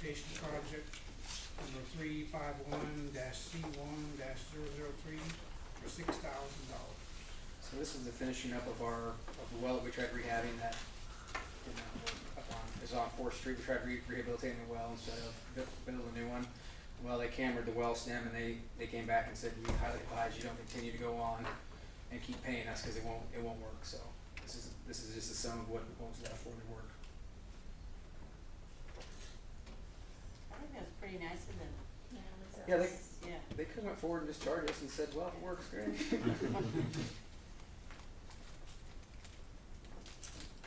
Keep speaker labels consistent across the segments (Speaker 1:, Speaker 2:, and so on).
Speaker 1: Station Project number three five one dash C one dash zero zero three for six thousand dollars.
Speaker 2: So this is the finishing up of our, of the well that we tried rehabbing that, you know, up on, is on Fourth Street, we tried re- rehabilitating the well instead of bu- building a new one. Well, they cambered the well stem and they, they came back and said, we highly advise you don't continue to go on and keep paying us, cause it won't, it won't work, so. This is, this is just the sum of what, what was left for the work.
Speaker 3: I think that's pretty nice of them,
Speaker 2: Yeah, they,
Speaker 3: yeah.
Speaker 2: they could've went forward and just charged us and said, well, it works great.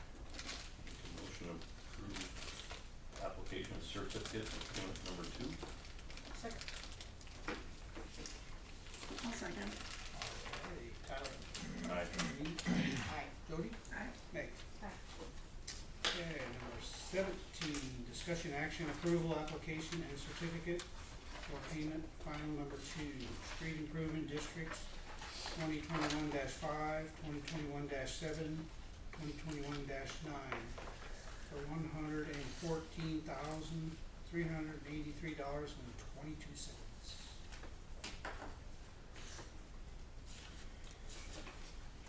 Speaker 4: Motion to approve application certificate of payment number two.
Speaker 3: Second.
Speaker 5: I'll second.
Speaker 1: Hey, Tyler.
Speaker 4: Aye.
Speaker 1: Janine,
Speaker 3: Aye.
Speaker 1: Jody?
Speaker 5: Aye.
Speaker 1: Meg?
Speaker 5: Aye.
Speaker 1: Okay, number seventeen, discussion action approval application and certificate for payment final number two, street improvement districts, twenty twenty-one 5 2021 seven, twenty twenty-one nine, for one hundred and fourteen thousand, three hundred and eighty-three dollars and twenty-two cents.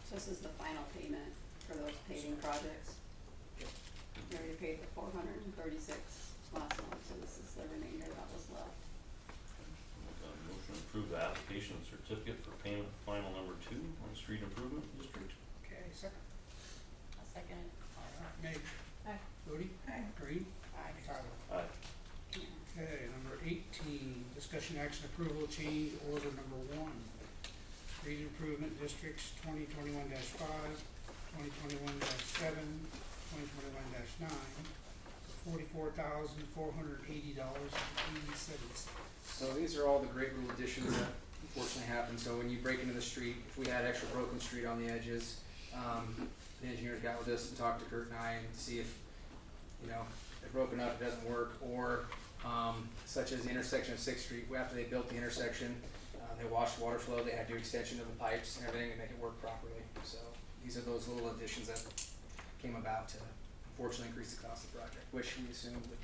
Speaker 5: So this is the final payment for those paving projects. We already paid the four hundred and thirty-six last month, so this is the remainder that was left.
Speaker 4: Uh, Motion to approve the application certificate for payment final number two on street improvement district.
Speaker 1: Okay, second.
Speaker 3: I'll second it.
Speaker 1: All right, Meg?
Speaker 5: Aye.
Speaker 1: Jody?
Speaker 5: Aye.
Speaker 1: Green?
Speaker 3: Aye.
Speaker 1: Tyler?
Speaker 4: Aye.
Speaker 1: Okay, number eighteen, discussion action approval change order number one. Street improvement districts twenty twenty-one 5 2021 seven, twenty twenty-one nine, for forty-four thousand, four hundred eighty dollars and eighty-seven cents.
Speaker 2: So these are all the great little additions that unfortunately happen, so when you break into the street, if we had extra broken street on the edges, um, the engineers got with us and talked to Kurt and I and see if, you know, they're broken up, it doesn't work, or, um, such as the intersection of Sixth Street, after they built the intersection, uh, they washed water flow, they had to do extension of the pipes and everything to make it work properly, so these are those little additions that came about to unfortunately increase the cost of the project, which we assumed would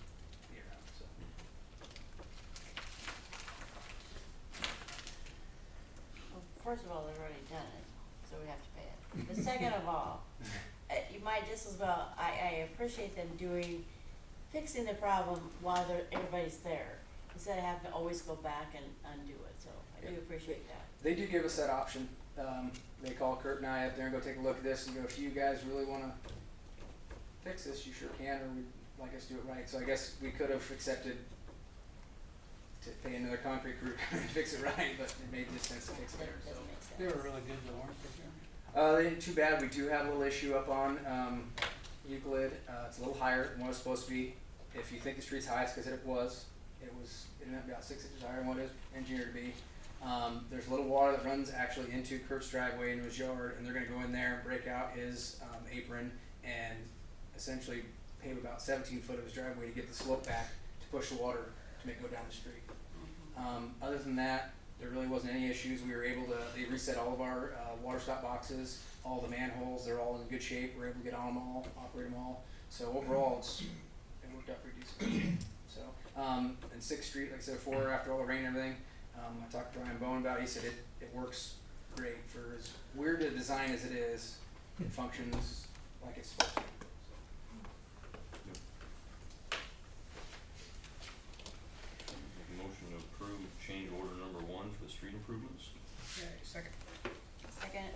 Speaker 2: be around, so.
Speaker 3: Well, first of all, they've already done it, so we have to pay it. But second of all, uh, you might just as well, I, I appreciate them doing, fixing the problem while they're, everybody's there, instead of having to always go back and undo it, so I do
Speaker 2: Yeah.
Speaker 3: appreciate that.
Speaker 2: They do give us that option. Um, they call Kurt and I up there and go take a look at this and go, if you guys really want to fix this, you sure can, or we'd like us to do it right. So I guess we could have accepted to pay another concrete crew to fix it right, but it made just sense to fix it there.
Speaker 3: That
Speaker 2: So.
Speaker 3: doesn't make sense.
Speaker 1: They were really good, the Lawrence Program.
Speaker 2: Uh, they- too bad we do have a little issue up on um, Euclid. Uh, it's a little higher than what it's supposed to be. If you think the street's high, it's because it was. It was it ended up about six inches higher than what it was engineered to be. Um, there's a little water that runs actually into Kurt's driveway into his yard, and they're going to go in there and break out his um, apron and essentially pave about 17 foot of his driveway to get the slope back to push the water to make it go down the street. Um, other than that, there really wasn't any issues. We were able to, they reset all of our uh, water stop boxes, all the manholes, they're all in good shape. We're able to get on them all, operate them all. So overall, it's, it worked out pretty decent. So, um, and Sixth Street, like I said before, after all the rain and everything, um, I talked to Ryan Bowen about it. He said it, it works great for as weird a design as it is. It functions like it's supposed to.
Speaker 4: Make a Motion to approve change order number one for the street improvements.
Speaker 1: Okay, second.
Speaker 3: Second,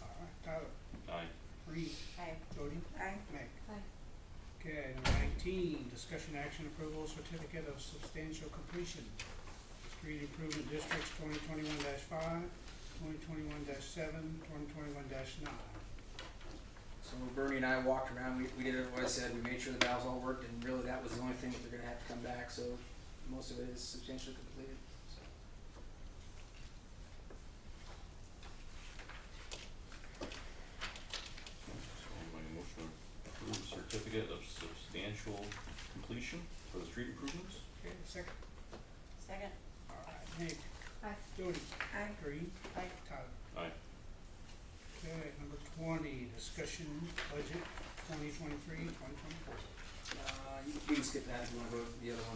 Speaker 1: All right, Tyler,
Speaker 4: Aye.
Speaker 1: Reed,
Speaker 3: aye.
Speaker 1: Jody,
Speaker 5: Aye.
Speaker 1: Meg.
Speaker 5: Aye.
Speaker 1: Okay, number nineteen, discussion action approval certificate of substantial completion. Street improvement districts twenty twenty-one 5 2021 seven, twenty twenty-one nine.
Speaker 2: So Bernie and I walked around, we, we did what I said, we made sure the valves all worked, and really that was the only thing that they're gonna have to come back, so most of it is substantially completed, so.
Speaker 4: So my motion to approve certificate of substantial completion for the street improvements.
Speaker 1: Okay, second.
Speaker 3: Second,
Speaker 1: All right, Hank.
Speaker 5: Aye.
Speaker 1: Jody.
Speaker 5: Aye.
Speaker 1: Green.
Speaker 3: aye.
Speaker 1: Tyler.
Speaker 4: Aye.
Speaker 1: Okay, number twenty, discussion budget 2023 2024.
Speaker 2: Uh, you you can skip that if you wanna go to the other one.